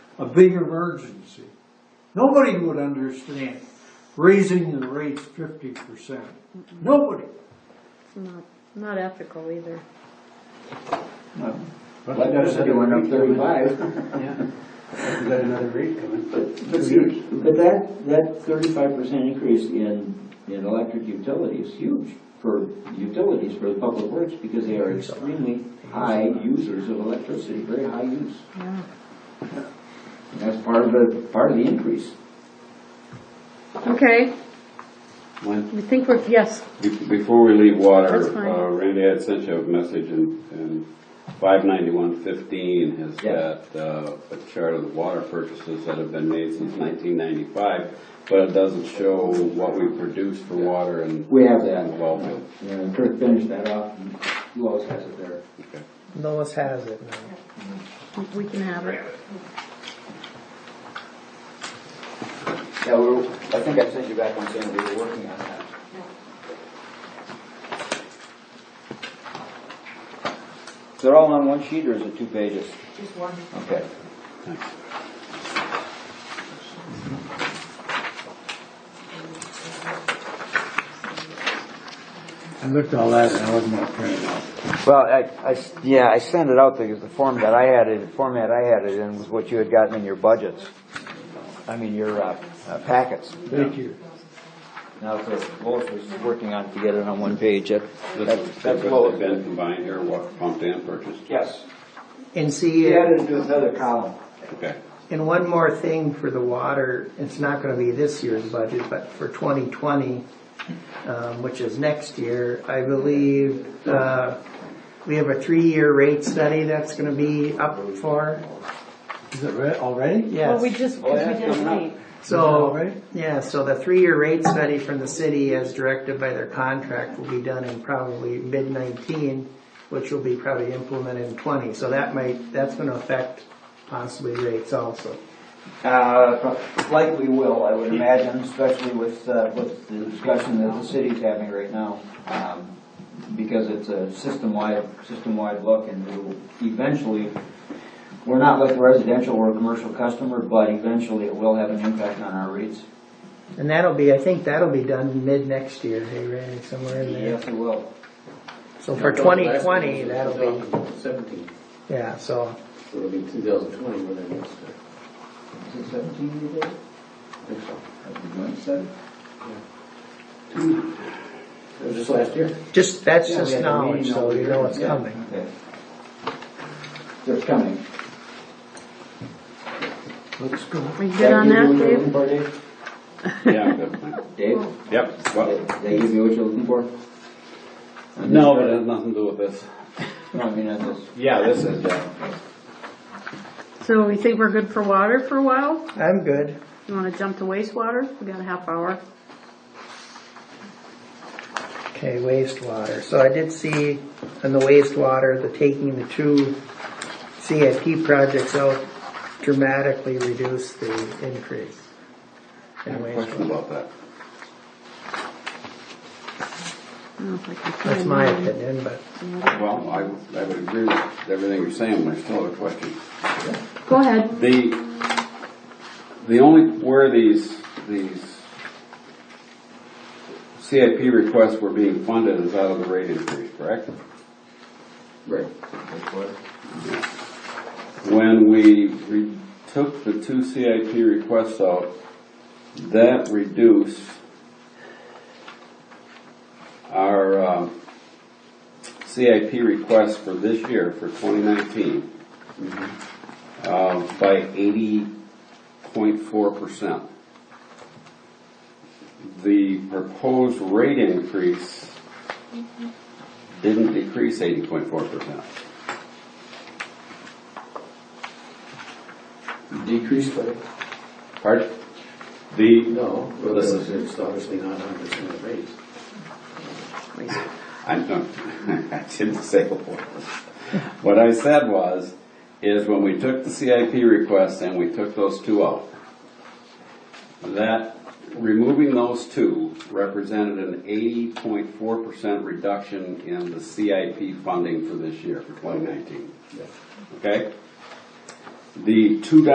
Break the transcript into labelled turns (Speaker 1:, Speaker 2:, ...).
Speaker 1: a big emergency. Nobody would understand raising the rates fifty percent. Nobody.
Speaker 2: Not, not ethical either.
Speaker 3: But
Speaker 4: Like I said, it went up thirty-five,
Speaker 3: You got another rate coming.
Speaker 4: but, but see, but that, that thirty-five percent increase in, in electric utility is huge for utilities, for the public works, because they are extremely high users of electricity, very high use.
Speaker 2: Yeah.
Speaker 4: And that's part of the, part of the increase.
Speaker 2: Okay,
Speaker 5: When-
Speaker 2: we think we're, yes,
Speaker 5: be- Before we leave water,
Speaker 2: That's fine.
Speaker 5: uh, Randy, I sent you a message in, in five ninety-one fifteen has
Speaker 4: Yeah.
Speaker 5: got uh, a chart of the water purchases that have been made since nineteen ninety-five, but it doesn't show what we produce for water and.
Speaker 4: We have that.
Speaker 5: and Well, field.
Speaker 4: And Kirk finished that off, and who else has it there?
Speaker 5: Okay.
Speaker 6: Lois has it now.
Speaker 2: we can have it.
Speaker 3: Yeah, we're, I think I sent you back on saying we were working on that.
Speaker 4: They're all on one sheet, or is it two pages?
Speaker 7: Just one.
Speaker 4: Okay.
Speaker 3: I looked at all that and I wasn't gonna print it out.
Speaker 8: Well, I, I s- yeah, I sent it out because the form that I had it, format I had it in was what you had gotten in your budgets. I mean, your, uh, uh, packets.
Speaker 1: Thank you.
Speaker 8: Now, the Lois was working on it to get it on one page, that,
Speaker 5: This
Speaker 8: that-
Speaker 5: is,
Speaker 8: that's
Speaker 5: what
Speaker 8: Lois.
Speaker 5: they've been combined here, what pumped and purchased?
Speaker 3: Yes.
Speaker 6: And see,
Speaker 4: He
Speaker 6: it-
Speaker 4: added it to another column.
Speaker 5: Okay.
Speaker 6: and one more thing for the water, it's not gonna be this year's budget, but for twenty twenty, um, which is next year, I believe, uh, we have a three-year rate study that's gonna be up for,
Speaker 3: Is it re- already?
Speaker 6: yes.
Speaker 2: Well, we just,
Speaker 4: Oh,
Speaker 2: because
Speaker 4: yeah,
Speaker 2: we didn't
Speaker 4: coming up.
Speaker 2: meet.
Speaker 6: So,
Speaker 3: Alright.
Speaker 6: yeah, so the three-year rate study from the city as directed by their contract will be done in probably mid-nineteen, which will be probably implemented in twenty, so that might, that's gonna affect possibly rates also.
Speaker 4: Uh, likely will, I would imagine, especially with, uh, with the discussion that the city's having right now. um, Because it's a system-wide, system-wide look and we will eventually, we're not like a residential or a commercial customer, but eventually it will have an impact on our rates.
Speaker 6: And that'll be, I think that'll be done mid-next year, hey Randy, somewhere in there.
Speaker 4: Yes, it will.
Speaker 6: So for twenty twenty, that'll be,
Speaker 3: Seventeen,
Speaker 6: yeah, so,
Speaker 3: so it'll be two thousand twenty when it gets there.
Speaker 4: Is it seventeen you did? Have you done seven?
Speaker 3: It was just last year.
Speaker 6: just, that's
Speaker 4: Yeah, we
Speaker 6: just
Speaker 4: had a
Speaker 6: knowledge,
Speaker 4: meeting
Speaker 6: so
Speaker 4: over
Speaker 6: you
Speaker 4: here.
Speaker 6: know it's
Speaker 4: Yeah,
Speaker 6: coming.
Speaker 4: okay. So it's coming.
Speaker 1: Let's go.
Speaker 2: Are you good on that, Dave?
Speaker 4: Dave?
Speaker 5: Yeah, I'm good.
Speaker 4: Dave?
Speaker 5: Yep. Well,
Speaker 4: Did they give you what you're looking for? On
Speaker 5: No, but it
Speaker 4: this
Speaker 5: has nothing to do with this.
Speaker 4: part? No, I mean, on this.
Speaker 5: Yeah, this is, yeah.
Speaker 2: So we think we're good for water for a while?
Speaker 6: I'm good.
Speaker 2: You wanna jump to wastewater? We got a half hour.
Speaker 6: Okay, wastewater. So I did see in the wastewater, the taking the two CIP projects out dramatically reduced the increase in
Speaker 5: Question
Speaker 6: wastewater.
Speaker 5: about that.
Speaker 2: I don't know if I can find
Speaker 6: That's my
Speaker 2: mine.
Speaker 6: opinion, but
Speaker 5: Well, I, I would agree with everything you're saying, but I still have a question.
Speaker 2: Go ahead.
Speaker 5: The, the only, where these, these CIP requests were being funded is out of the rate increase, correct?
Speaker 4: Right.
Speaker 5: When we re- took the two CIP requests out, that reduced our uh, CIP request for this year, for 2019, uh, by 80.4%. The proposed rate increase didn't decrease 80.4%.
Speaker 3: Decreased by,
Speaker 5: Pardon? The,
Speaker 3: no, well,
Speaker 5: This
Speaker 3: it's it's obviously not a hundred percent of rates.
Speaker 5: I don't, I didn't say a word. What I said was, is when we took the CIP requests and we took those two out, that removing those two represented an eighty point four percent reduction in the CIP funding for this year, for twenty nineteen. Okay? The two